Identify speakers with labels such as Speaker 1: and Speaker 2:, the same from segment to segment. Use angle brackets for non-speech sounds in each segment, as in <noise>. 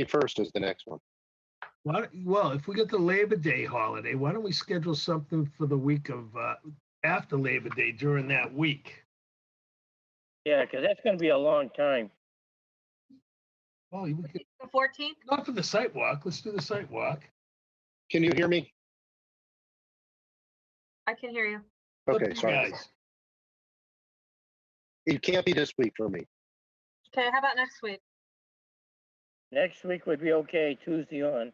Speaker 1: 21st is the next one.
Speaker 2: Why don't- Well, if we get the Labor Day holiday, why don't we schedule something for the week of, uh, after Labor Day during that week?
Speaker 3: Yeah, because that's going to be a long time.
Speaker 2: Well, we could,
Speaker 4: The fourteenth?
Speaker 2: not for the sidewalk, let's do the sidewalk.
Speaker 1: Can you hear me?
Speaker 4: I can hear you.
Speaker 1: Okay, sorry. It can't be this week for me.
Speaker 4: Okay, how about next week?
Speaker 3: Next week would be okay, Tuesday on.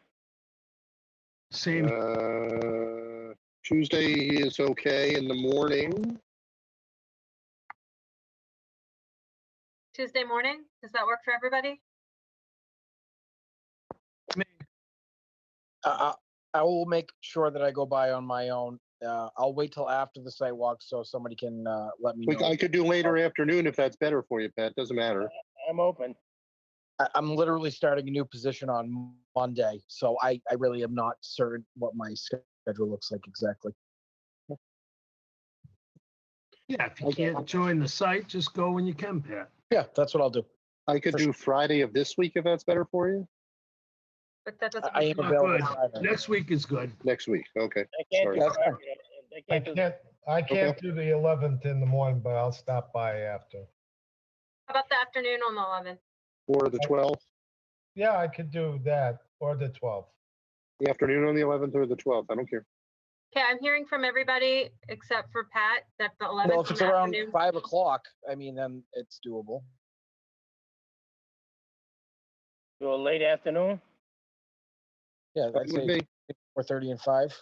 Speaker 2: Same,
Speaker 1: Uh, Tuesday is okay in the morning.
Speaker 4: Tuesday morning? Does that work for everybody?
Speaker 5: I, I I will make sure that I go by on my own. Uh, I'll wait till after the site walk so somebody can uh, let me
Speaker 1: We,
Speaker 5: know.
Speaker 1: I could do later afternoon if that's better for you, Pat. Doesn't matter.
Speaker 3: I'm open.
Speaker 5: I, I'm literally starting a new position on Monday, so I, I really am not certain what my schedule looks like exactly.
Speaker 2: yeah, if you can't join the site, just go when you can, Pat.
Speaker 5: Yeah, that's what I'll do.
Speaker 1: I could
Speaker 5: For
Speaker 1: do Friday of this week if that's better for you.
Speaker 4: But that
Speaker 5: I,
Speaker 4: doesn't.
Speaker 5: I
Speaker 4: work
Speaker 5: am
Speaker 4: for-
Speaker 2: not
Speaker 5: available.
Speaker 2: good.
Speaker 5: Friday.
Speaker 2: Next week is good.
Speaker 1: Next week. Okay.
Speaker 3: I can't do
Speaker 1: Sorry.
Speaker 3: Friday. I
Speaker 6: I
Speaker 3: can't do-
Speaker 6: can't, I can't do the eleventh in the morning, but I'll stop by after.
Speaker 4: How about the afternoon on the eleventh?
Speaker 1: Or the 12th,
Speaker 6: Yeah, I could do that or the twelfth.
Speaker 1: the afternoon on the 11th or the 12th. I don't care.
Speaker 4: Okay, I'm hearing from everybody except for Pat that the eleventh.
Speaker 5: Well, if it's around five o'clock, I mean, then it's doable.
Speaker 3: do a late afternoon.
Speaker 5: Yeah, I'd
Speaker 1: Would
Speaker 5: say
Speaker 1: be.
Speaker 5: four thirty and five.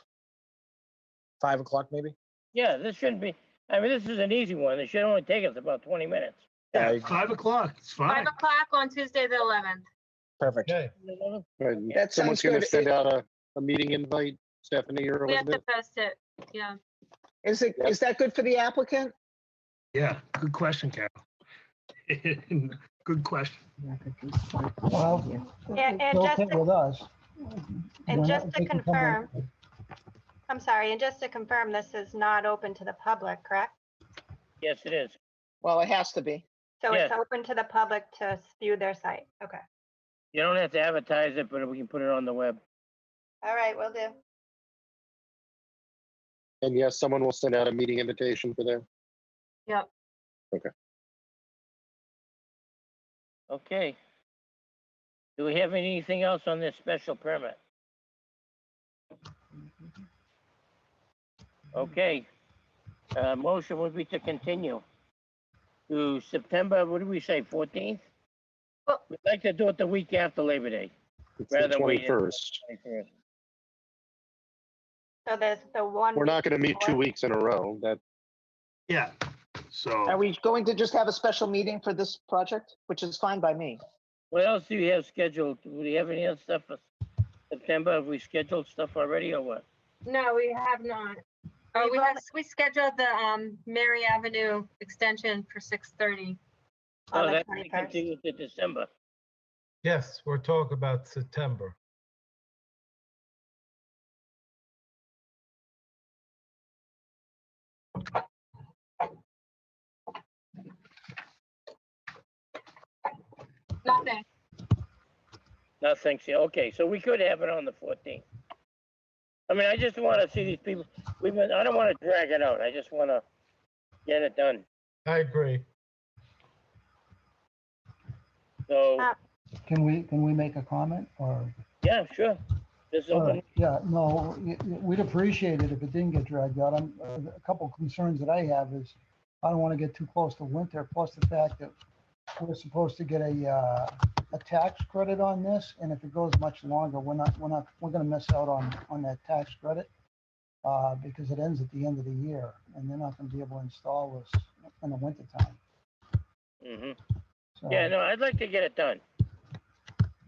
Speaker 5: Five o'clock, maybe.
Speaker 3: Yeah, this shouldn't be, I mean, this is an easy one. It should only take us about 20 minutes.
Speaker 5: Yeah,
Speaker 2: Yeah, five o'clock, it's
Speaker 4: Five
Speaker 2: fine.
Speaker 4: o'clock on Tuesday, the eleventh.
Speaker 5: Perfect.
Speaker 6: Okay,
Speaker 1: All right, and
Speaker 5: That
Speaker 1: Someone's
Speaker 5: sounds
Speaker 1: going to
Speaker 5: good.
Speaker 1: send out a, a meeting invite, Stephanie or
Speaker 4: We have to
Speaker 1: Elizabeth.
Speaker 4: post it. Yeah.
Speaker 7: Is it,
Speaker 1: Yep.
Speaker 7: is that good for the applicant?
Speaker 2: Yeah, good question, Carol. <laughs> Good question.
Speaker 8: Well,
Speaker 9: And, and
Speaker 8: they'll
Speaker 9: just,
Speaker 8: fit
Speaker 9: to-
Speaker 8: with us.
Speaker 9: and
Speaker 8: We're not
Speaker 9: just to
Speaker 8: taking public.
Speaker 9: confirm, I'm sorry, and just to confirm, this is not open to the public, correct?
Speaker 3: Yes, it is.
Speaker 7: Well, it has to be.
Speaker 9: So it's
Speaker 3: Yes.
Speaker 9: open to the public to view their site. Okay.
Speaker 3: You don't have to advertise it, but we can put it on the web.
Speaker 9: All right, will do.
Speaker 1: And yes, someone will send out a meeting invitation for there.
Speaker 3: Okay. Do we have anything else on this special permit? Okay. Uh, motion would be to continue to September, what did we say, fourteenth?
Speaker 4: Well-
Speaker 3: We'd like to do it the week after Labor Day.
Speaker 1: It's the
Speaker 3: Rather wait until-
Speaker 1: 21st.
Speaker 3: 21st.
Speaker 9: So there's the one.
Speaker 1: We're not going to meet two
Speaker 9: before.
Speaker 1: weeks in a row. That
Speaker 2: Yeah, so.
Speaker 7: Are we going to just have a special meeting for this project, which is fine by me?
Speaker 3: What else do you have scheduled? Do we have any other stuff for September? Have we scheduled stuff already or what?
Speaker 4: No, we have not. Oh, we
Speaker 9: We've
Speaker 4: have, we scheduled the, um, Mary Avenue extension for six thirty.
Speaker 9: On
Speaker 3: Oh,
Speaker 9: the
Speaker 3: that
Speaker 9: 21st.
Speaker 3: continues to December.
Speaker 6: yes, we're talking about September.
Speaker 4: Nothing.
Speaker 3: Nothing, so, okay, so we could have it on the fourteenth. I mean, I just wanna see these people, we've been, I don't wanna drag it out, I just wanna get it done.
Speaker 6: I agree.
Speaker 3: So,
Speaker 9: Uh,
Speaker 8: Can we, can we make a comment or?
Speaker 3: yeah, sure. This is
Speaker 8: Uh,
Speaker 3: open,
Speaker 8: Yeah, no, y- y- we'd appreciate it if it didn't get dragged out. I'm, uh, a couple concerns that I have is I don't want to get too close to winter, plus the fact that we're supposed to get a, uh, a tax credit on this, and if it goes much longer, we're not, we're not, we're gonna miss out on, on that tax credit. Uh, because it ends at the end of the year, and they're not gonna be able to install this in the winter time.
Speaker 3: mhm.
Speaker 8: So,
Speaker 3: Yeah, no, I'd like to get it done.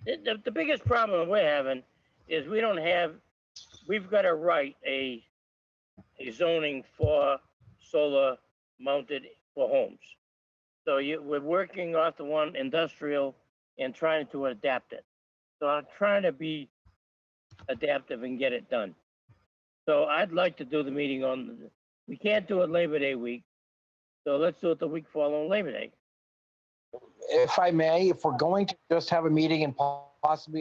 Speaker 3: The, the, the biggest problem we're having is we don't have, we've gotta write a, a zoning for solar mounted for homes. So you, we're working off the one industrial and trying to adapt it. So I'm trying to be adaptive and get it done. So I'd like to do the meeting on, the- we can't do it Labor Day week. So let's do it the week following Labor Day.
Speaker 5: If I may, if we're going to just have a meeting and po- possibly